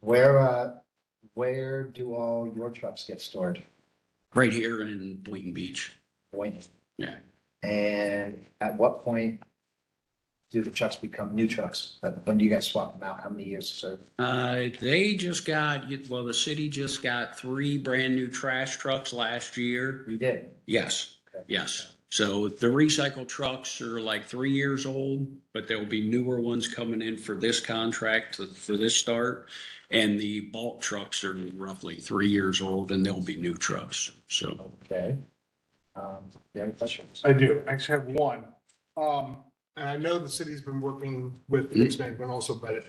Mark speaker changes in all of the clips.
Speaker 1: Where, uh, where do all your trucks get stored?
Speaker 2: right here in Boynton Beach.
Speaker 1: Point.
Speaker 2: Yeah.
Speaker 1: And at what point do the trucks become new trucks? Uh, When do you guys swap them out? How many years So
Speaker 2: Uh, they just got, well, the city just got three brand new trash trucks last year.
Speaker 1: You did.
Speaker 2: Yes,
Speaker 1: Okay.
Speaker 2: yes. So the recycle trucks are like three years old, but there will be newer ones coming in for this contract, for this start. And the bulk trucks are roughly three years old and they'll be new trucks. So.
Speaker 1: Okay. Um, do you have any questions?
Speaker 3: I do. I actually have one. Um, and I know the city's been working with the news bank, but also, but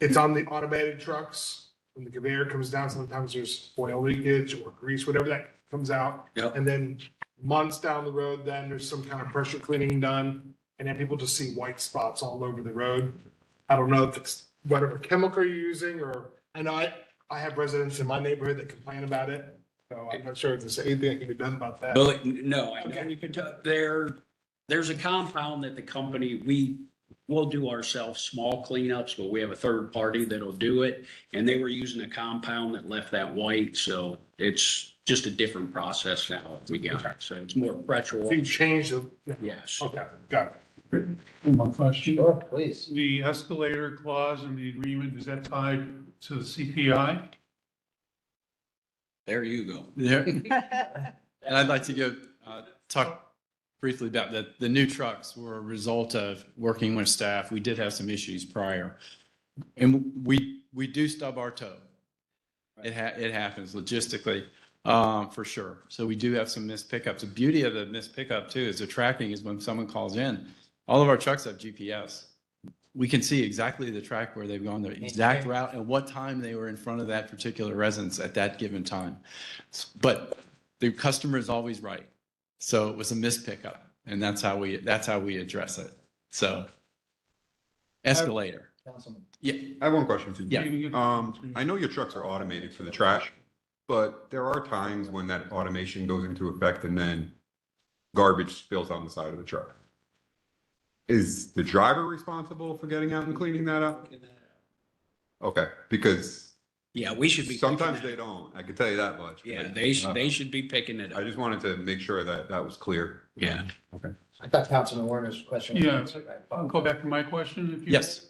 Speaker 3: it's on the automated trucks. When the conveyor comes down, sometimes there's oil leakage or grease, whatever that comes out.
Speaker 2: Yep.
Speaker 3: And then months down the road, then there's some kind of pressure cleaning done, and then people just see white spots all over the road. I don't know if it's whatever chemical you're using, or, I know I, I have residents in my neighborhood that complain about it. So I'm not sure if there's anything that can be done about that.
Speaker 2: But no, I know
Speaker 3: Okay.
Speaker 2: you can tell, there, there's a compound that the company, we will do ourselves small cleanups, but we have a third party that'll do it. And they were using a compound that left that white, so it's just a different process now we got, it. so it's more pressure.
Speaker 3: If you change the,
Speaker 4: Oh.
Speaker 2: Yes,
Speaker 3: Okay, got it.
Speaker 5: One question.
Speaker 1: Sure, please.
Speaker 5: The escalator clause in the agreement, is that tied to the CPI?
Speaker 2: there you go.
Speaker 6: There, and I'd like to give, uh, talk briefly about that. The new trucks were a result of working with staff. We did have some issues prior. And we, we do stub our toe. It ha, it happens logistically, um, for sure. So we do have some missed pickups. The beauty of the missed pickup too is the tracking is when someone calls in. All of our trucks have GPS. We can see exactly the track where they've gone, the exact route and what time they were in front of that particular residence at that given time. But the customer is always right. So it was a missed pickup and that's how we, that's how we address it. So escalator.
Speaker 1: Councilman.
Speaker 6: Yeah,
Speaker 4: I have one question for you.
Speaker 6: Yeah.
Speaker 2: Mm-hmm.
Speaker 4: Um, I know your trucks are automated for the trash, but there are times when that automation goes into effect and then garbage spills on the side of the truck. Is the driver responsible for getting out and cleaning that up? Okay, because
Speaker 2: Yeah, we should be. picking
Speaker 4: sometimes
Speaker 2: that-
Speaker 4: they don't. I can tell you that much.
Speaker 2: Yeah, they, sh- they should be picking it
Speaker 4: I
Speaker 2: up.
Speaker 4: just wanted to make sure that that was clear.
Speaker 2: Yeah.
Speaker 1: I thought Councilman Warner's question.
Speaker 5: Yeah. I'll go back to my question. if you-
Speaker 6: yes,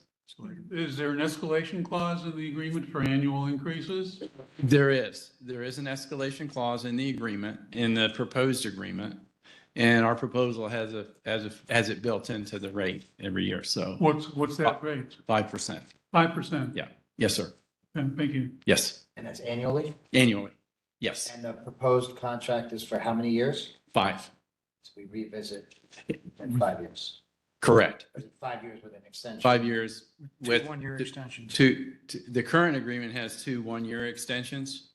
Speaker 5: Is there an escalation clause in the agreement for annual increases?
Speaker 6: there is. There is an escalation clause in the agreement, in the proposed agreement. And our proposal has a, has a, has it built into the rate every year. So
Speaker 5: What's, what's
Speaker 6: Uh,
Speaker 5: that rate?
Speaker 6: 5%.
Speaker 5: Five percent?
Speaker 6: Yeah. Yes, sir.
Speaker 5: Thank you.
Speaker 6: Yes.
Speaker 1: And that's annually?
Speaker 6: Annually. Yes.
Speaker 1: And the proposed contract is for how many years?
Speaker 6: Five.
Speaker 1: So we revisit in five years.
Speaker 6: Correct.
Speaker 1: Or is it Five years with an extension.
Speaker 6: Five years with.
Speaker 7: One-year extensions.
Speaker 6: Two, t- the current agreement has two one-year extensions.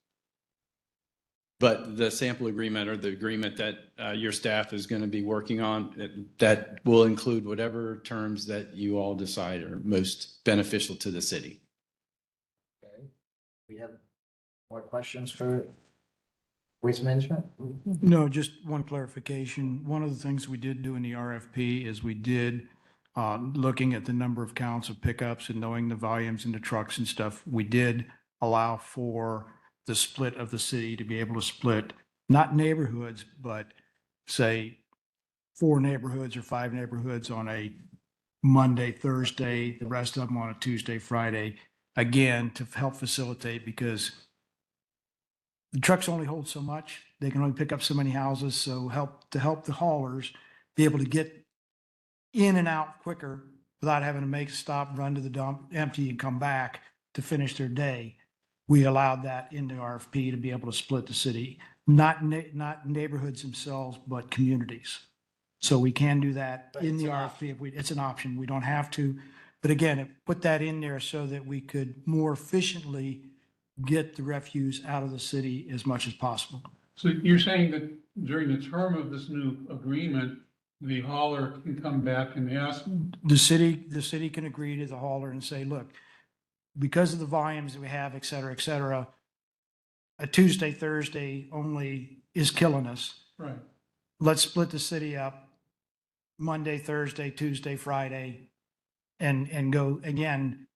Speaker 6: But the sample agreement or the agreement that uh, your staff is going to be working on, that- that will include whatever terms that you all decide are most beneficial to the city.
Speaker 1: Okay. We have more questions for waste management?
Speaker 7: No, just one clarification. One of the things we did do in the RFP is we did, uh, looking at the number of counts of pickups and knowing the volumes in the trucks and stuff, we did allow for the split of the city to be able to split, not neighborhoods, but say four neighborhoods or five neighborhoods on a Monday, Thursday, the rest of them on a Tuesday, Friday. Again, to help facilitate because the trucks only hold so much. They can only pick up so many houses. So help, to help the haulers be able to get in and out quicker without having to make a stop, run to the dump, empty and come back to finish their day. We allowed that in the RFP to be able to split the city, not, ne- not neighborhoods themselves, but communities. So we can do that
Speaker 1: But
Speaker 7: in
Speaker 1: it's
Speaker 7: the
Speaker 1: an
Speaker 7: RFP. If we, it's an option. We don't have to. But again, it- put that in there so that we could more efficiently get the refuse out of the city as much as possible.
Speaker 5: So you're saying that during the term of this new agreement, the hauler can come back and ask,
Speaker 7: The city, the city can agree to the hauler and say, look, because of the volumes that we have, et cetera, et cetera, a Tuesday, Thursday only is killing us.
Speaker 5: right,
Speaker 7: Let's split the city up Monday, Thursday, Tuesday, Friday, and, and go again,